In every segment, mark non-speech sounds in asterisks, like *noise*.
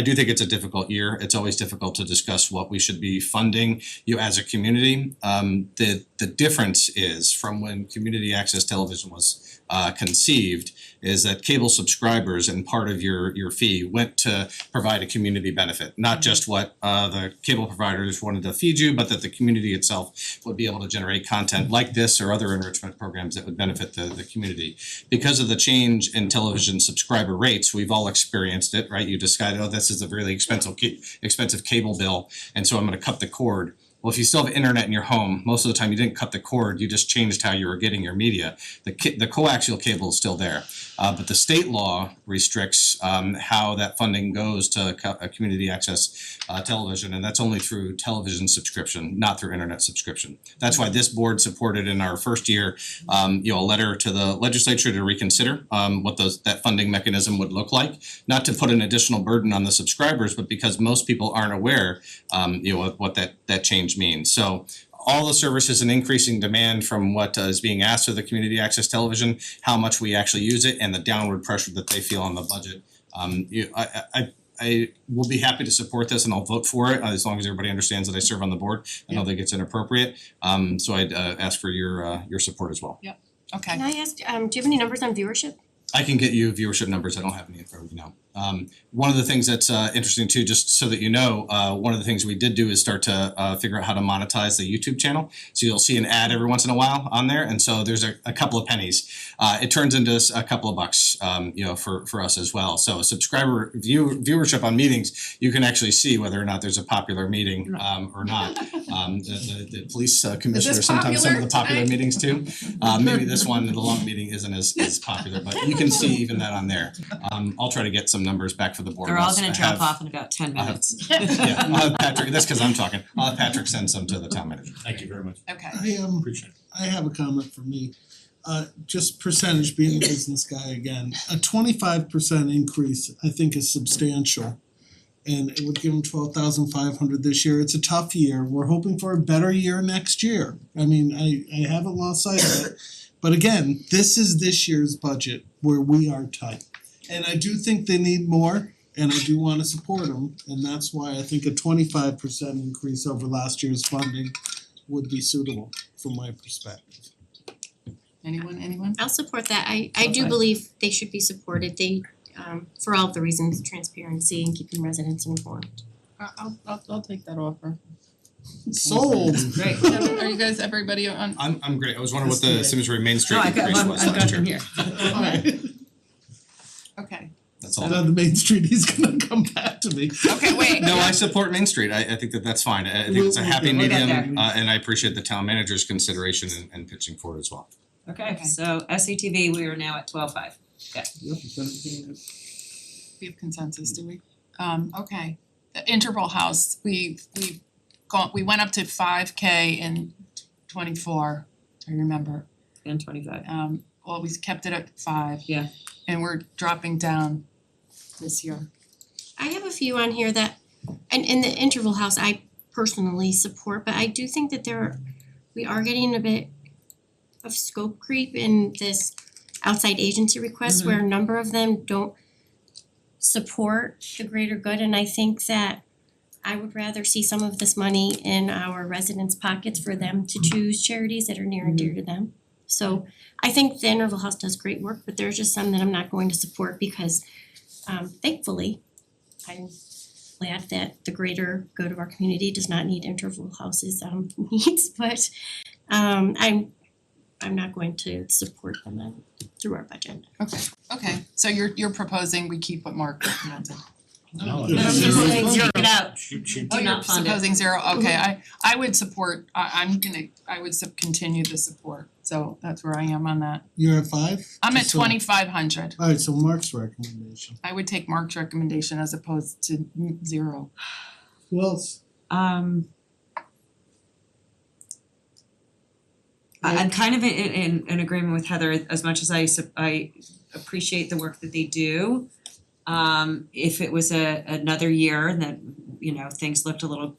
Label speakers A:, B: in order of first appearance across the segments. A: I do think it's a difficult year. It's always difficult to discuss what we should be funding you as a community. Um the the difference is from when community access television was uh conceived is that cable subscribers and part of your your fee went to provide a community benefit, not just what uh the cable providers wanted to feed you, but that the community itself would be able to generate content like this or other enrichment programs that would benefit the the community because of the change in television subscriber rates, we've all experienced it, right? You decided, oh, this is a really expensive ca- expensive cable bill, and so I'm gonna cut the cord. Well, if you still have internet in your home, most of the time you didn't cut the cord, you just changed how you were getting your media. The ca- the coaxial cable is still there, uh, but the state law restricts um how that funding goes to co- uh, community access uh television, and that's only through television subscription, not through internet subscription. That's why this board supported in our first year um you know, a letter to the legislature to reconsider um what those that funding mechanism would look like. Not to put an additional burden on the subscribers, but because most people aren't aware um you know of what that that change means. So all the services and increasing demand from what uh, is being asked of the community access television, how much we actually use it and the downward pressure that they feel on the budget. Um you I I- I I will be happy to support this and I'll vote for it uh, as long as everybody understands that I serve on the board. I don't think it's inappropriate. Um so I'd uh ask for your uh your support as well.
B: Okay,
C: Can I ask, um do you have any numbers on viewership?
A: I can get you viewership numbers, I don't have any in front of me now. Um one of the things that's uh interesting too, just so that you know, uh one of the things we did do is start to uh figure out how to monetize the YouTube channel. So you'll see an ad every once in a while on there, and so there's a a couple of pennies. Uh it turns into s- a couple of bucks, um you know, for for us as well. So subscriber view viewership on meetings, you can actually see whether or not there's a popular meeting um or not. Um the the the police uh, commissioner, sometimes some of the popular
B: popular
A: meetings too. Uh *laughs* maybe this one, the long meeting isn't as as popular, but you can see even that on there. Um I'll try to get some numbers back for the board.
D: They're all
A: once I
D: gonna drop
A: have-
D: off in about ten
A: I have-
D: minutes.
A: *laughs*
B: *laughs*
A: Yeah, I'll have Patrick, that's cause I'm talking, I'll have Patrick send some to the town manager.
E: Thank you very much.
B: okay.
F: I um
E: Appreciate it.
F: I have a comment for me. Uh just percentage being a business guy again, a twenty five percent increase I think is substantial. And it would give them twelve thousand five hundred this year. It's a tough year. We're hoping for a better year next year. I mean, I I haven't lost sight of it. But again, this is this year's budget where we are tight. And I do think they need more and I do wanna support them. And that's why I think a twenty five percent increase over last year's funding would be suitable from my perspective.
B: Anyone, anyone?
C: I'll support that. I I do
B: Okay.
C: believe they should be supported. They um for all of the reasons, transparency and keeping residents informed.
B: I- I'll I'll I'll take that offer.
F: *laughs* Sold.
B: Great, so are you guys, everybody on?
A: I'm I'm great, I was wondering what the
F: That's good.
A: Simsbury Main Street
D: No, I got,
A: increase
D: I'm,
A: was
D: I'm
A: last
D: got them
A: year,
D: here.
F: Alright,
B: Okay,
A: that's all.
F: and on the main street, he's gonna come back to me.
B: okay, wait,
A: No, I support Main Street, I I think that that's fine, I I think it's a
F: We'll- we'll
A: happy
F: get-
D: we'll get
A: medium, uh and I appreciate the town manager's consideration and and pitching for it as well.
D: Okay,
B: Okay.
D: so SCTV, we are now at twelve five.
B: we have consensus, do we? Um, okay, the interval house, we we've gone, we went up to five K in twenty four, I remember.
D: And
A: *laughs*
D: twenty five.
B: Um, well, we kept it at five.
D: Yeah.
B: And we're dropping down this year.
C: I have a few on here that and in the interval house I personally support, but I do think that there are we are getting a bit of scope creep in this outside agency requests where a number of them don't support the greater good and I think that I would rather see some of this money in our residents' pockets for them to choose charities that are near and dear to them. So I think the interval house does great work, but there's just some that I'm not going to support because um thankfully I'm glad that the greater good of our community does not need interval houses um *laughs* needs, but um I'm I'm not going to support them then through our budget.
B: Okay, okay, so you're you're proposing we keep what Mark recommended.
E: No,
F: No,
E: it's-
F: I'm just saying-
D: it out.
E: She she
B: Oh,
D: Do
B: you're
D: not fund it. Mm-hmm.
B: supposing zero, okay, I I would support, I I'm gonna, I would sup- continue the support, so that's where I am on that.
F: You're at five?
B: I'm at
F: So-
B: twenty five hundred,
F: Alright, so Mark's recommendation.
B: I would take Mark's recommendation as opposed to n- zero.
F: Who else?
D: Um. I I'm kind of in in in agreement with Heather, as much as I sup- I appreciate the work that they do. Um if it was a another year and that, you know, things looked a little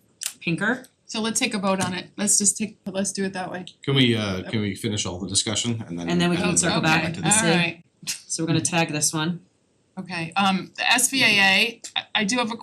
D: pinker,
B: So let's take a vote on it, let's just take, let's do it that way.
A: Can we uh can we finish all the discussion and then
D: And then we can
A: we'll
B: Oh,
D: circle
A: come
D: back
A: to
D: and
A: this?
D: see.
B: Okay, alright,
D: so we're gonna tag this one.
B: okay, um the SVAA, I I do have a